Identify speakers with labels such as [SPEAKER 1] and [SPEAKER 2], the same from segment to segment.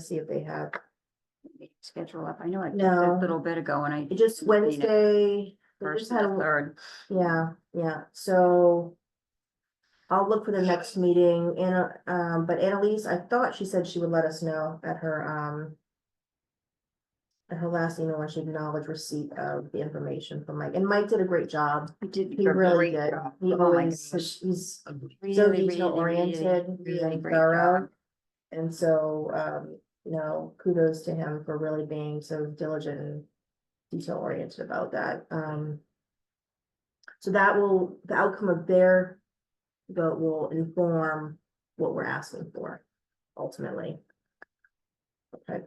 [SPEAKER 1] see if they have,
[SPEAKER 2] schedule up. I know I did
[SPEAKER 1] No.
[SPEAKER 2] a little bit ago and I.
[SPEAKER 1] just Wednesday. we
[SPEAKER 2] First
[SPEAKER 1] just had
[SPEAKER 2] and the
[SPEAKER 1] a-
[SPEAKER 2] third.
[SPEAKER 1] Yeah, yeah, so. I'll look for the next meeting, and, um, but Annalise, I thought she said she would let us know at her, um. At her last email, when she acknowledged receipt of the information from Mike, and Mike did a great job,
[SPEAKER 2] We did.
[SPEAKER 1] he
[SPEAKER 2] a
[SPEAKER 1] really
[SPEAKER 2] great
[SPEAKER 1] did,
[SPEAKER 2] job.
[SPEAKER 1] he
[SPEAKER 2] Oh my
[SPEAKER 1] always,
[SPEAKER 2] gosh.
[SPEAKER 1] he's
[SPEAKER 2] Really,
[SPEAKER 1] so
[SPEAKER 2] really,
[SPEAKER 1] detail oriented,
[SPEAKER 2] really, really
[SPEAKER 1] and
[SPEAKER 2] great
[SPEAKER 1] thorough.
[SPEAKER 2] job.
[SPEAKER 1] And so, um, you know, kudos to him for really being so diligent and detail oriented about that, um. So that will, the outcome of their vote will inform what we're asking for ultimately. Okay.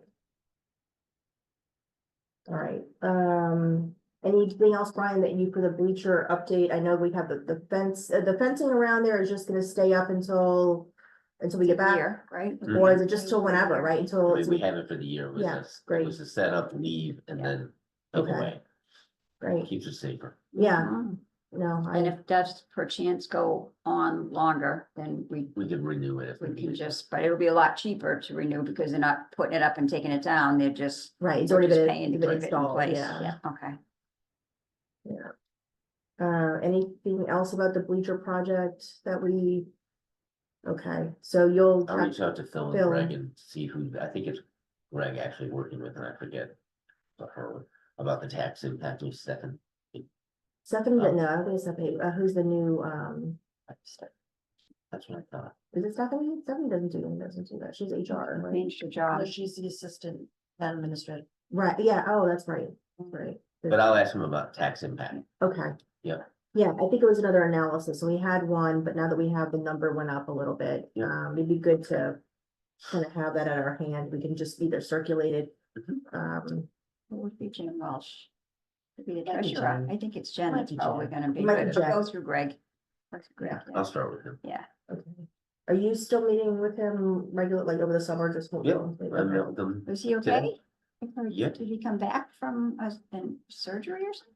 [SPEAKER 1] All right, um, anything else, Brian, that you for the bleacher update? I know we have the, the fence, uh, the fencing around there is just gonna stay up until, until we get back.
[SPEAKER 2] Year, right?
[SPEAKER 3] Mhm.
[SPEAKER 1] Or is it just till whenever, right? Until
[SPEAKER 3] I mean,
[SPEAKER 1] it's,
[SPEAKER 3] we have it for the year. It was
[SPEAKER 1] Yeah,
[SPEAKER 3] a- it
[SPEAKER 1] great.
[SPEAKER 3] Was a setup, leave, and
[SPEAKER 2] Yeah.
[SPEAKER 3] then go
[SPEAKER 1] Okay.
[SPEAKER 3] away.
[SPEAKER 1] right,
[SPEAKER 3] Keeps it safer.
[SPEAKER 1] yeah,
[SPEAKER 2] Mhm.
[SPEAKER 1] no,
[SPEAKER 2] And
[SPEAKER 1] I,
[SPEAKER 2] if does perchance go on longer, then we,
[SPEAKER 3] We can renew it if we
[SPEAKER 2] we can
[SPEAKER 3] need it.
[SPEAKER 2] just, but it'll be a lot cheaper to renew because they're not putting it up and taking it down. They're just.
[SPEAKER 1] right, it's
[SPEAKER 2] we're
[SPEAKER 1] already
[SPEAKER 2] just
[SPEAKER 1] been,
[SPEAKER 2] paying to
[SPEAKER 1] it's
[SPEAKER 2] keep
[SPEAKER 1] been
[SPEAKER 2] it in
[SPEAKER 1] installed,
[SPEAKER 2] place.
[SPEAKER 1] yeah.
[SPEAKER 2] Okay.
[SPEAKER 1] Uh, anything else about the bleacher project that we? Okay, so you'll,
[SPEAKER 3] I'll reach out to Phil and
[SPEAKER 1] Phil.
[SPEAKER 3] Greg and see who, I think it's Greg actually working with, and I forget. But her, about the tax impact of Stefan.
[SPEAKER 1] Stephanie,
[SPEAKER 3] Oh.
[SPEAKER 1] no, I think it's Stephanie, uh, who's the new, um,
[SPEAKER 3] That's what I thought.
[SPEAKER 1] is it Stephanie? Stephanie doesn't do, doesn't do that, she's HR, right?
[SPEAKER 2] Changed your job.
[SPEAKER 4] she's the assistant administrator.
[SPEAKER 1] Right, yeah, oh, that's right, that's right.
[SPEAKER 3] But I'll ask him about tax impact.
[SPEAKER 1] Okay.
[SPEAKER 3] Yeah.
[SPEAKER 1] Yeah, I think it was another analysis, so we had one, but now that we have the number went up a little bit,
[SPEAKER 3] Yeah.
[SPEAKER 1] um, it'd be good to. Kind of have that at our hand, we can just either circulate it,
[SPEAKER 3] Mm-hmm.
[SPEAKER 1] um,
[SPEAKER 2] It would be Jen Welsh. Could be the
[SPEAKER 4] Might be
[SPEAKER 2] treasurer.
[SPEAKER 4] Jen.
[SPEAKER 2] I think it's Jen
[SPEAKER 4] Might
[SPEAKER 2] that's
[SPEAKER 4] be
[SPEAKER 2] probably
[SPEAKER 4] Jen.
[SPEAKER 2] gonna be,
[SPEAKER 1] Might
[SPEAKER 2] but
[SPEAKER 1] be
[SPEAKER 2] it'll
[SPEAKER 1] Jen.
[SPEAKER 2] go through Greg. Or through Greg, yeah.
[SPEAKER 3] I'll start with him.
[SPEAKER 1] okay. Are you still meeting with him regular, like over the summer, just?
[SPEAKER 3] Yeah, I
[SPEAKER 1] Okay.
[SPEAKER 3] mailed them.
[SPEAKER 2] Was he
[SPEAKER 3] Jen?
[SPEAKER 2] okay? I heard-
[SPEAKER 3] Yeah.
[SPEAKER 2] Did he come back from a, in surgery or something?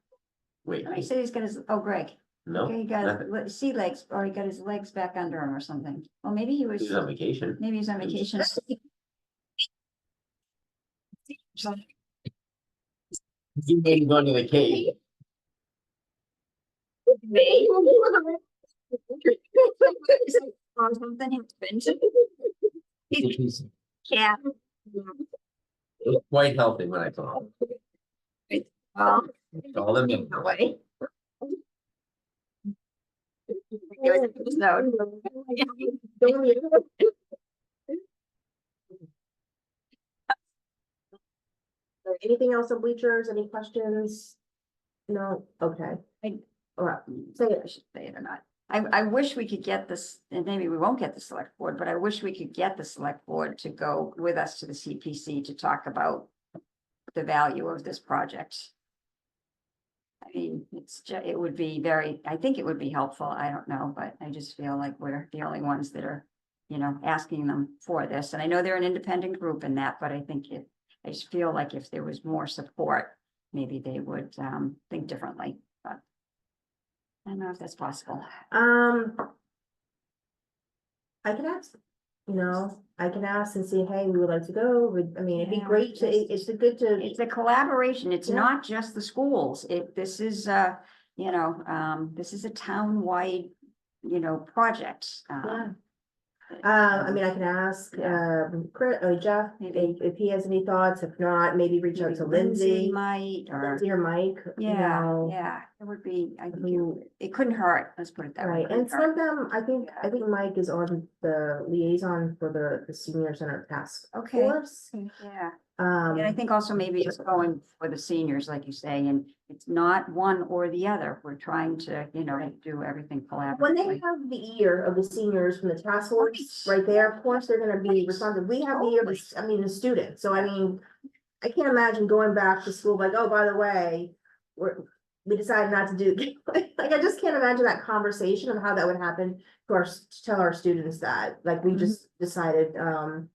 [SPEAKER 3] Wait,
[SPEAKER 2] Somebody said he's got his, oh, Greg,
[SPEAKER 3] no,
[SPEAKER 2] Okay, he got his
[SPEAKER 3] nothing.
[SPEAKER 2] le- sea legs, or he got his legs back under him or something. Well, maybe he was,
[SPEAKER 3] he's on vacation.
[SPEAKER 2] maybe he's on
[SPEAKER 3] He was-
[SPEAKER 2] vacation.
[SPEAKER 3] You made him go to the cave.
[SPEAKER 2] Or something, he's been-
[SPEAKER 3] It was
[SPEAKER 2] yeah.
[SPEAKER 3] it was quite healthy when I saw him.
[SPEAKER 2] Well,
[SPEAKER 3] All the milk.
[SPEAKER 2] either way. It was- it was no-
[SPEAKER 1] Anything else on bleachers, any questions? No, okay.
[SPEAKER 2] I-
[SPEAKER 1] All right, say
[SPEAKER 2] I
[SPEAKER 1] it,
[SPEAKER 2] should say it or not. I, I wish we could get this, and maybe we won't get the select board, but I wish we could get the select board to go with us to the CPC to talk about the value of this project. I mean, it's, ju- it would be very, I think it would be helpful. I don't know, but I just feel like we're the only ones that are, you know, asking them for this. And I know they're an independent group in that, but I think it, I just feel like if there was more support, maybe they would, um, think differently. I don't know if that's possible.
[SPEAKER 1] um. I can ask, you know, I can ask and see, hey, we would like to go, would, I mean, it'd be
[SPEAKER 2] Yeah,
[SPEAKER 1] great to,
[SPEAKER 2] just-
[SPEAKER 1] it's good to,
[SPEAKER 2] It's a collaboration. It's
[SPEAKER 1] Yeah.
[SPEAKER 2] not just the schools. It, this is uh you know, um, this is a town-wide, you know, project.
[SPEAKER 1] yeah.
[SPEAKER 2] Um,
[SPEAKER 1] Uh, I mean, I can ask, um, Chris, uh, Jeff,
[SPEAKER 2] Maybe.
[SPEAKER 1] if, if he has any thoughts, if not, maybe reach out
[SPEAKER 2] maybe
[SPEAKER 1] to Lindsay.
[SPEAKER 2] Might or,
[SPEAKER 1] Lindsay or Mike, you
[SPEAKER 2] yeah,
[SPEAKER 1] know.
[SPEAKER 2] yeah, it would be, I think it
[SPEAKER 1] who-
[SPEAKER 2] would- it couldn't hurt. Let's put it that way.
[SPEAKER 1] Right,
[SPEAKER 2] it
[SPEAKER 1] and
[SPEAKER 2] couldn't
[SPEAKER 1] some
[SPEAKER 2] hurt.
[SPEAKER 1] of them, I think, I think Mike is on the liaison for the, the senior center task
[SPEAKER 2] Okay.
[SPEAKER 1] force.
[SPEAKER 2] Yeah, and I
[SPEAKER 1] Um,
[SPEAKER 2] think also maybe it's going for the seniors, like you say, and it's not one or the other. We're trying to, you know, do everything
[SPEAKER 1] when they
[SPEAKER 2] collaboratively.
[SPEAKER 1] have the ear of the seniors from the task force,
[SPEAKER 2] Right.
[SPEAKER 1] right there, of course, they're gonna be
[SPEAKER 2] Right.
[SPEAKER 1] responsible. We have the ear, of the
[SPEAKER 2] Totally.
[SPEAKER 1] s- I mean, the students, so I mean, I can't imagine going back to school like, oh, by the way, we're, we decided not to do, like, I just can't imagine that conversation of how that would happen to our, s- to tell our students that, like, we
[SPEAKER 2] Mhm.
[SPEAKER 1] just decided, um,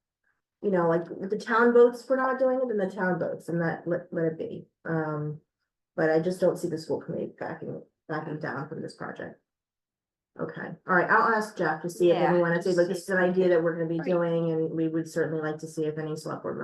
[SPEAKER 1] you know, like, if the town votes for not doing it, then the town votes, and that, let, let it be. Um, but I just don't see the school committee backing, backing down from this project. Okay, all right, I'll ask Jeff to see if
[SPEAKER 2] Yeah,
[SPEAKER 1] anyone, if they
[SPEAKER 2] just
[SPEAKER 1] like,
[SPEAKER 2] see
[SPEAKER 1] this is an idea that we're gonna be
[SPEAKER 2] Right.
[SPEAKER 1] doing, and we would certainly like to see if any select board members